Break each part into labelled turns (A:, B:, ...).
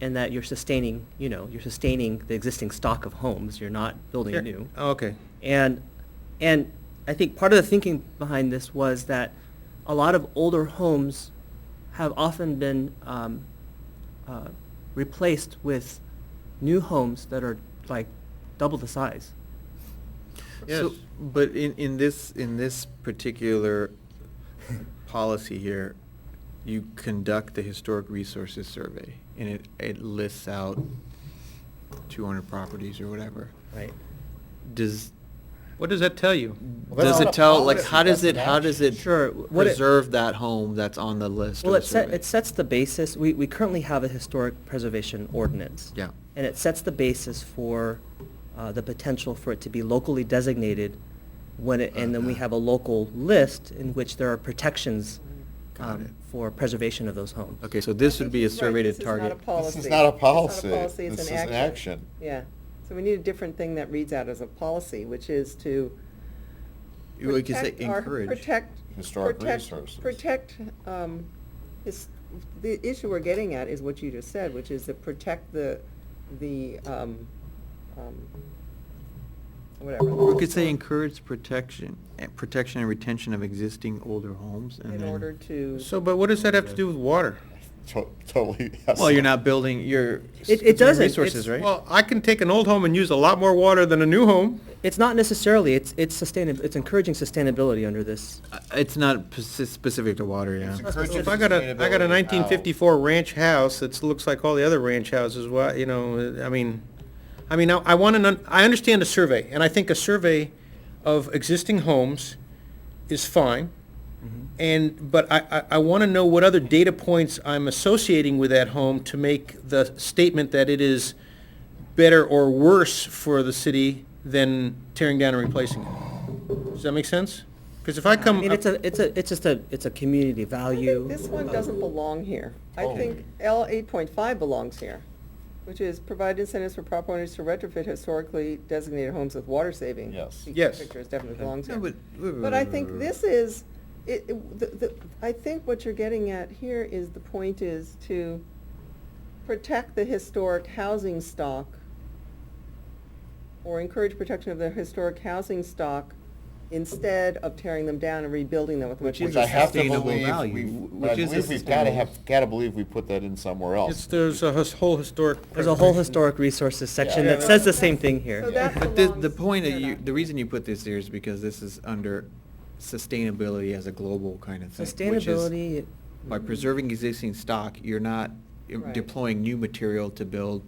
A: and that you're sustaining, you know, you're sustaining the existing stock of homes, you're not building
B: Sure.
A: new.
B: Oh, Okay,
A: And, and I think part of the thinking behind this was that a lot of older homes have often been um, uh, replaced with new homes that are like double the size.
B: yes,
A: So-
B: but in, in this, in this particular policy here, you conduct the historic resources survey, and it, it lists out two hundred properties or whatever.
A: Right.
B: Does,
C: What does that tell you?
D: Well, that's
B: does
D: not
B: it
D: a
B: tell, like,
D: policy,
B: how does
D: that's
B: it,
D: an
B: how does
D: action.
B: it
A: Sure, what it-
B: preserve that home that's on the list of
A: Well,
B: the
A: it set,
B: survey?
A: it sets the basis, we, we currently have a historic preservation ordinance.
B: Yeah.
A: And it sets the basis for, uh, the potential for it to be locally designated when it, and then we
B: Uh-huh.
A: have a local list in which there are protections,
B: Got it.
A: um, for preservation of those homes.
B: Okay, so this would be a
E: Right,
B: surveyed
E: this is not
B: target.
E: a
D: This
E: policy.
D: is not a
E: It's
D: policy.
E: policy, it's
D: This is an action.
E: Yeah, so we need a different thing that reads out as a policy, which is to
B: We could say
E: protect our-
B: encourage.
E: Protect.
D: Historic
E: protect-
D: resources.
E: Protect, um, is, the issue we're getting at is what you just said, which is to protect the, the, um, um, whatever.
B: We could say encourage protection, eh, protection and retention of existing older homes and
E: In
B: then-
E: order to.
C: So, but what does that have to do with water?
D: To- Totally.
B: Well, you're not building, you're.
A: It- it doesn't.
B: Resources,
A: It's-
B: right?
C: Well, I can take an old home and use a lot more water than a new home.
A: It's not necessarily, it's, it's sustainab, it's encouraging sustainability under this.
B: Uh, It's not p- s- specific to water, yeah.
D: It's encouraging
C: If I got a, I got a
D: sustainability.
C: nineteen fifty-four ranch house that looks like all the other ranch houses, why, you know, I mean, I mean, I, I want to, I understand a survey, and I think a survey of existing homes is fine. And, but I, I, I want to know what other data points I'm associating with that home to make the statement that it is better or worse for the city than tearing down and replacing it. Does that make sense? Because if I
A: I
C: come.
A: mean, it's a, it's a, it's just a, it's a community
E: I think
A: value.
E: This one doesn't belong here. I
D: Oh.
E: think L eight point five belongs here, which is provide incentives for property owners to retrofit historically designated homes with water saving.
D: Yes.
E: The
C: Yes.
E: Picture is definitely belongs
B: No,
E: here. But I think this is, it, it- the, the, I think what you're getting at here is, the point is to protect the historic housing stock or encourage protection of the historic housing stock instead of tearing them down and rebuilding them with
C: Which
E: much.
D: Which
C: is a
D: I have to
C: sustainable
D: believe,
C: value,
D: we've-
C: which
D: but I
C: is a
D: believe we've gotta
C: sustainable-
D: have, gotta believe we put that in somewhere else.
C: It's, there's a his- whole historic.
A: There's a whole
C: preservation.
A: historic resources section
D: Yeah.
A: that says the same thing
E: So
A: here.
E: that
B: But the,
E: belongs
B: the point that
E: here,
B: you,
E: not
B: the
E: here.
B: reason you put this here is because this is under sustainability as a global kind of thing. which is
A: Sustainability.
B: By preserving existing stock, you're not eh,
E: Right.
B: deploying new material to build.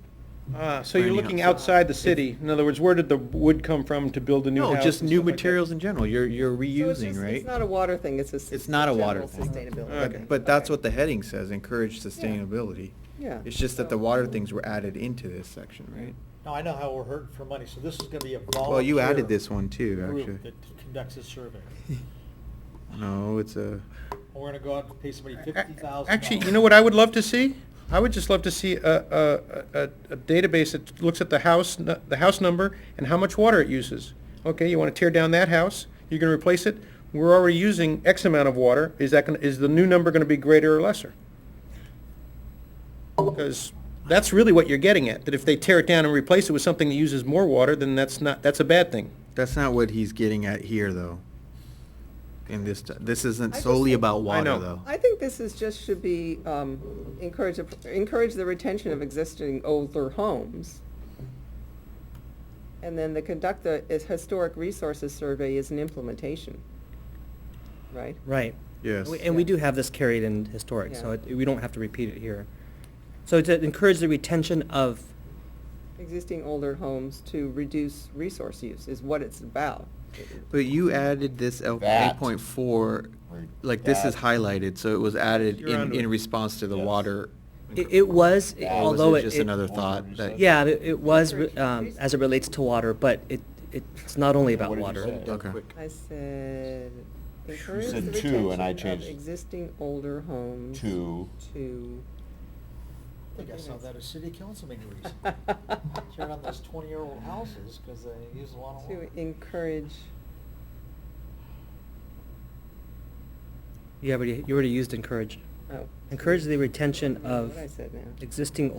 C: Ah, so you're
B: Tiny
C: looking
B: house.
C: outside the city. In other words, where did the wood come from to build a new house?
B: No, just
C: and
B: new
C: stuff like that?
B: materials in general, you're, you're
E: So it's
B: reusing,
E: just-
B: right?
E: It's not a water thing, it's a. s-
B: It's not a water
E: general
B: thing.
E: Sustainability.
C: Okay.
E: thing.
B: But that's
E: Okay.
B: what the heading says, encourage sustainability.
E: Yeah.
B: It's just that the
E: So-
B: water things were added into this section, right?
F: Now, I know how we're hurting for money, so this is gonna be a volunteer.
B: Well, you added this one too,
F: Group
B: actually.
F: that conducts a survey.
B: No, it's a,
F: And We're gonna go out and pay somebody
C: A-
F: fifty thousand.
C: Actually, you know what I would love to see? I would just love to see a, a, a, a database that looks at the house, nu- the house number and how much water it uses. Okay, you wanna tear down that house, you're gonna replace it, we're already using X amount of water, is that gonna, is the new number gonna be greater or lesser? Because that's really what you're getting at, that if they tear it down and replace it with something that uses more water, then that's not, that's a bad thing.
B: that's not what he's getting at here, though. In this, this isn't
E: I just
B: solely
E: think-
B: about water,
C: know.
B: though.
E: I think this is just, should be, um, encourage, encourage the retention of existing older homes. And then the conduct the is historic resources survey is an implementation, right?
A: Right.
B: Yes.
A: We- And we do have this carried in historic, so
E: Yeah.
A: it- we don't have to repeat it here. So to encourage the retention of,
E: Existing older homes to reduce resource use is what it's about.
B: But you added this L
D: That.
B: eight point four,
D: Right.
B: like this is
D: That.
B: highlighted, so it was added
C: You're
B: in,
C: onto
B: in
C: it.
B: response to the
D: Yes.
B: water.
A: it- it was,
D: That
B: Or was
A: although it.
B: Just
A: it-
B: another thought that.
A: Yeah, it it was, re-
E: Encourage
A: um,
E: resources.
A: as it relates to water, but it, it's not only about
D: What did you
A: water.
D: say?
B: Okay.
E: I said, encourage the
D: said two,
E: retention
D: and I
E: of
D: changed-
E: existing older homes
D: To,
E: to.
F: I think I saw that at city council meeting recently. Tearing down those twenty-year-old houses, cause they use a lot of water.
E: To encourage,
A: You already, you already used encourage.
E: oh.
A: Encourage the retention
E: I don't know
A: of
E: What I said now.
A: existing